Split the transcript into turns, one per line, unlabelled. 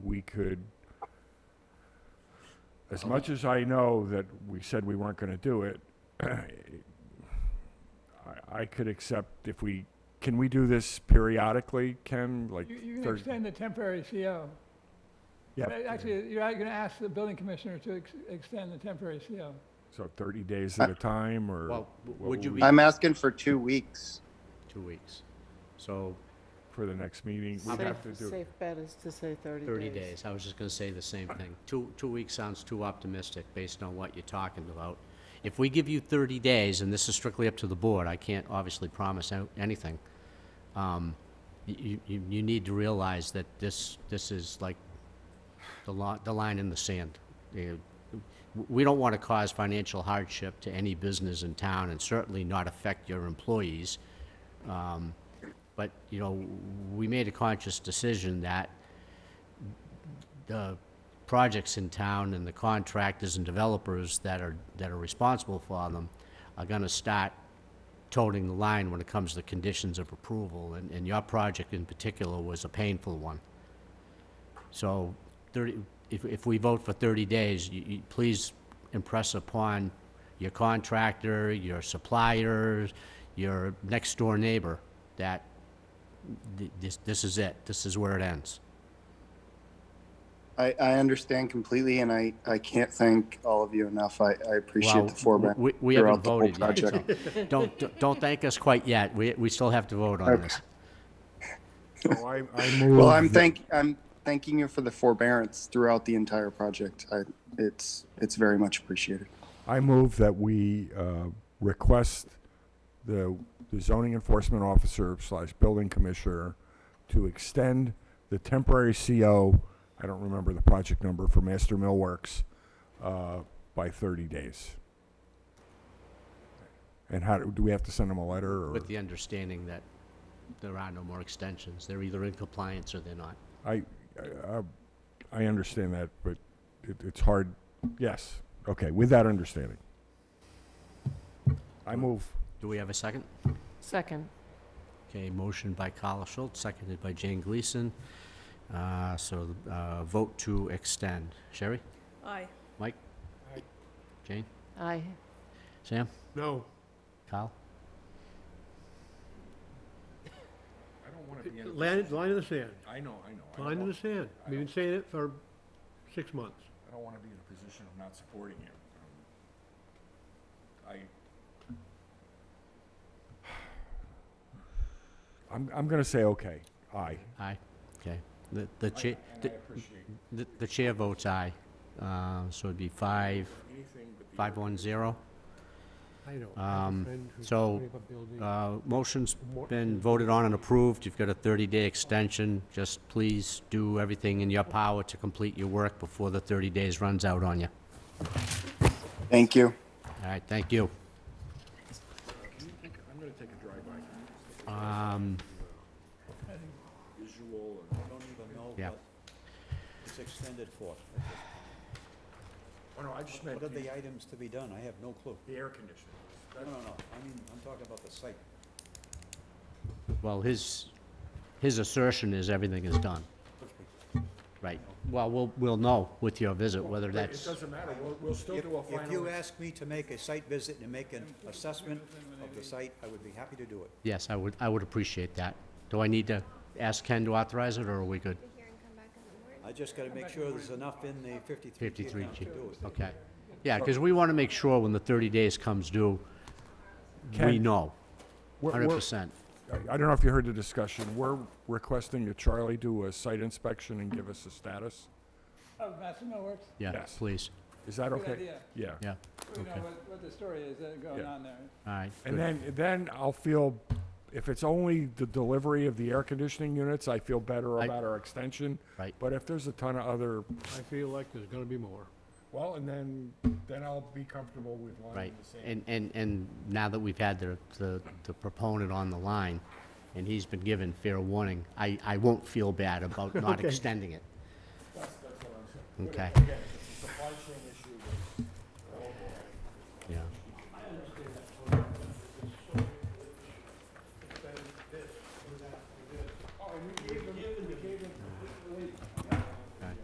we could,
Oh.
as much as I know that we said we weren't going to do it, I, I could accept if we, can we do this periodically, Ken? Like
You, you can
third-
extend the temporary CO.
Yeah.
But Actually, you're going to ask the building commissioner to ex- extend the temporary CO.
So 30 days at a time, or?
Well,
what
would you
will
be,
we-
I'm asking for two weeks.
two weeks? So
For the next meeting? We'd have to
Safe,
do,
safe bet is to say 30 days.
30 days, I was just gonna say the same thing. Two, two weeks sounds too optimistic based on what you're talking about. If we give you 30 days, and this is strictly up to the board, I can't obviously promise out- anything, um, you, you, you need to realize that this, this is like the li, the line in the sand. You know, w- We don't wanna cause financial hardship to any business in town, and certainly not affect your employees. Um, But, you know, we made a conscious decision that the uh, projects in town and the contractors and developers that are, that are responsible for them are gonna start toting the line when it comes to the conditions of approval, and, and your project in particular was a painful one. So thirty, if, if we vote for thirty days, you, you, please impress upon your contractor, your suppliers, your next-door neighbor, that th- this, this is it, this is where it ends.
I, I understand completely, and I, I can't thank all of you enough. I, I appreciate
Well,
the forbearance
We, we haven't
throughout the whole
voted yet,
project.
so don't, don't thank us quite yet. We, we still have to vote on
Okay.
this.
so I, I move.
Well, I'm
that-
thank, I'm thanking you for the forbearance throughout the entire project. I, it's, it's very much appreciated.
I move that we uh, request the the zoning enforcement officer slash building commissioner to extend the temporary CO, I don't remember the project number, for Master Millworks uh, by 30 days. And how, do do we have to send them a letter or?
With the understanding that there are no more extensions. They're either in compliance or they're not.
I, I- I- I understand that, but it, it's hard, yes, okay, with that understanding. I move.
Do we have a second?
Second.
Okay, motion by Carl Schultz, seconded by Jane Gleason. Uh, so, uh, vote to extend. Sherry?
Aye.
Mike? Jane?
Aye.
Sam?
No,
Kyle?
line, line in the sand,
I know, I know.
line in the sand. We've been saying it for six months.
I don't want to be in a position of not supporting you. Um, I, I'm, I'm going to say okay, aye.
Aye. Okay. The, the chair,
And I
the,
appreciate
the- the chair votes aye. Uh, so it'd be five,
anything but the.
five one zero.
I know.
Um, so, Uh, Motion's been voted on and approved. You've got a 30-day extension. Just please do everything in your power to complete your work before the 30 days runs out on you.
Thank you.
All right, thank you.
I'm going to take a drive-by.
Um,
Visual and.
I don't even know
Yeah.
what it's extended for.
Oh, no, I just meant
What are
the,
the items to be done? I have no clue.
the air conditioning.
No, no, no, I mean, I'm talking about the site.
Well, his, his assertion is everything is done. Right. Well, we'll, we'll know with your visit whether
But It
that's,
doesn't matter, we'll, we'll still
If
do a
if you
final.
ask me to make a site visit and make an assessment of the site, I would be happy to do it.
yes, I would, I would appreciate that. Do I need to ask Ken to authorize it, or are we good?
here and come back in the morning.
I just gotta make sure there's enough in the fifty-three G
53
account
G.
to do it.
Okay. Yeah, because we want to make sure when the 30 days comes due, we
Ken?
know,
We're- we're-
100%.
I I don't know if you heard the discussion, we're requesting that Charlie do a site inspection and give us a status.
Oh, Master Millworks,
Yeah,
Yes.
please,
Is that
Good
okay?
idea.
Yeah.
yeah,
we know
Okay.
what, what the story is that going
Yeah.
on there.
all right.
And
good.
then, then I'll feel, if it's only the delivery of the air conditioning units, I feel better
I-
about our extension.
Right.
But if there's a ton of other,
I feel like there's gonna be more.
well, and then, then I'll be comfortable with
Right,
lining the same.
and, and, and now that we've had the, the the proponent on the line, and he's been given fair warning, I, I won't feel bad about not extending it. Okay,
Again, if it's a supply chain issue, then-
yeah,